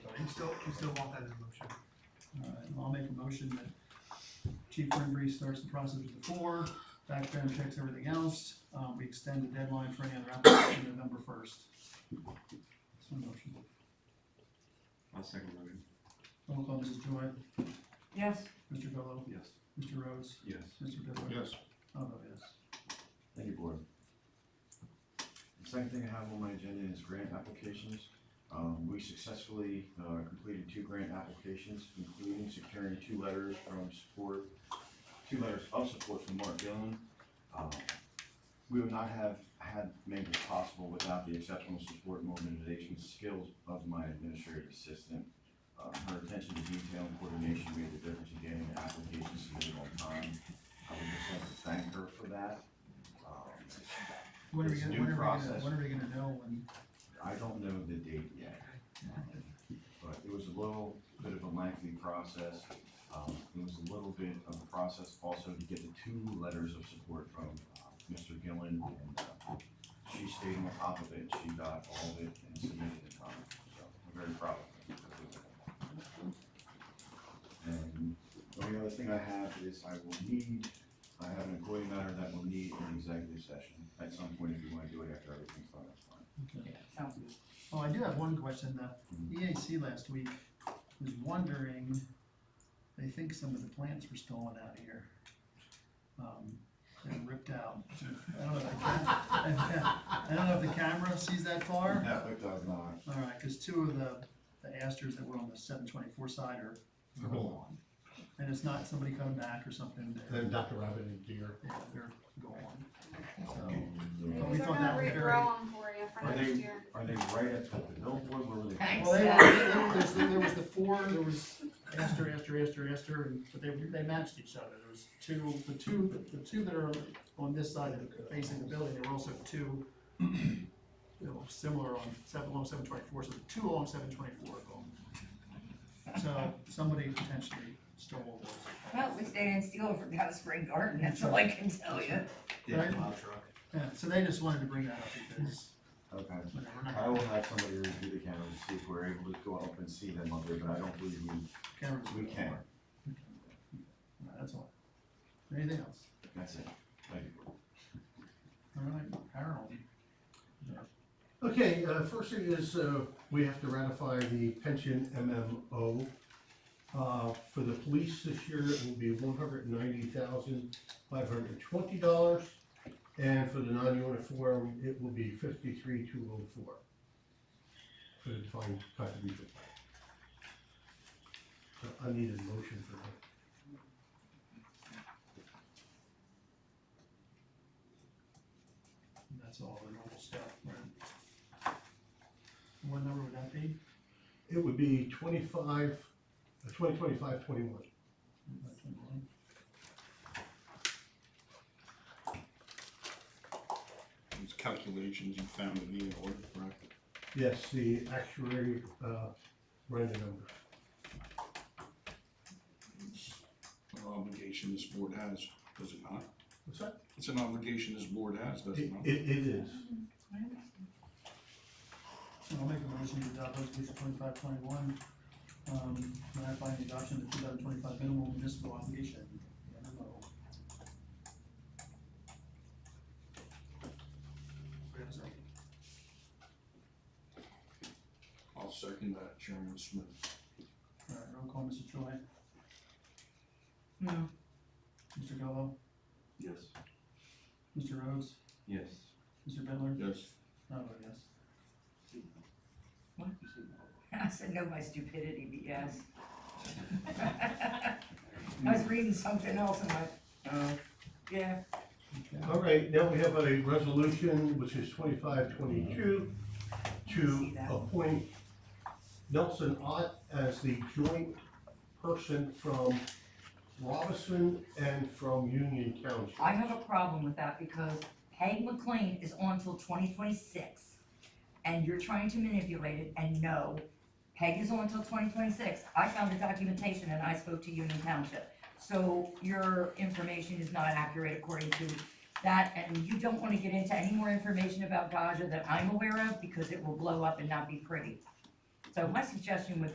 still, you still want that as a motion. All right, I'll make a motion that Chief Brinbury starts the process with the four, background checks everything else. Uh, we extend the deadline for any other application to November first. That's my motion. I'll second the motion. Roll call, Mrs. Joy, Yes. Mr. Gallow, Yes. Mr. Rhodes, Yes. Mr. Bittler. Yes. I'll vote yes. Thank you, board. The second thing I have on my agenda is grant applications. Um, we successfully, uh, completed two grant applications, including securing two letters from support, two letters of support from Mark Dillon. Um, We would not have had made this possible without the exceptional support and organization skills of my administrative assistant. Uh, her attention to detail and coordination made the difference in getting the application submitted on time. I would just like to thank her for that. Um, When are we It's a gonna, new when are we gonna, process. when are we gonna know when, I don't know the date yet, um, but it was a little bit of a lengthy process. Um, It was a little bit of a process also to get the two letters of support from uh, Mr. Gillen, and uh, she stayed on top of it, she got all of it and submitted it, um, so I'm very proud of her. And the only other thing I have is I will need, I have an employee matter that will need an executive session at some point if you want to do it after everything's done, that's fine. Yeah, sounds good. oh, I do have one question, the EAC last week was wondering, they think some of the plants were stolen out of here. Um, they were ripped out, I don't know if the camera, I don't know if the camera sees that far. No, it does not. All right, because two of the, the asters that were on the seven twenty-four side are are gone. And it's not somebody coming back or something, they're, Then Dr. Rabbit and Deer. yeah, they're gone. So, But we They're thought gonna that was very- regrow them for you for Are next they- year. Are they right at the billboard where were they? Thanks. Well, they were, there was, there was the four, there was Esther, Esther, Esther, Esther, and, but they, they matched each other, there was two, the two, the two that are on this side that are facing the building, there were also two, you know, similar on seven, along seven twenty-four, so the two along seven twenty-four are gone. So somebody potentially stole those. Well, at least they didn't steal it from House Spring Garden, that's all I can tell you. Yeah, plow truck. Yeah, so they just wanted to bring that up because, Okay. you know, we're not, I will have somebody review the camera to see if we're able to go up and see them up there, but I don't believe we, cameras. we can. No, That's all. Anything else? That's it. Thank you. All right, Harold. Okay, uh, first thing is, uh, we have to ratify the pension MMO. Uh, for the police this year, it will be one hundred and ninety thousand, five hundred and twenty dollars. And for the non-uniform, it will be fifty-three, two oh four. For the defined contribution plan. So I need a motion for that. That's all the normal stuff, right? What number would that be? It would be twenty-five, uh, twenty, twenty-five, twenty-one. About 21. Those calculations you found in the order, correct? Yes, the actuary, uh, ran the number. An obligation this board has, does it not? What's that? It's an obligation this board has, does It, it not? it it is. I'll make a motion to adopt resolution twenty-five twenty-one, um, ratifying the adoption of the two thousand twenty-five minimum municipal obligation. MMO. Wait a second. I'll second that, Chairman Smith. All right, roll call, Mr. Troy, No. Mr. Gallo, Yes. Mr. Rhodes, Yes. Mr. Bittler, Yes. I vote yes. I said no, my stupidity, but yes. I was reading something else and I, oh, yeah. All right, now we have a resolution, which is twenty-five, twenty-two, to appoint Nelson Ott as the joint person from Robinson and from Union Township. I have a problem with that because Peg McLean is on till twenty twenty-six. And you're trying to manipulate it and no, Peg is on till twenty twenty-six. I found the documentation and I spoke to Union Township. So your information is not accurate according to that and you don't wanna get into any more information about Gaja that I'm aware of because it will blow up and not be pretty. So my suggestion would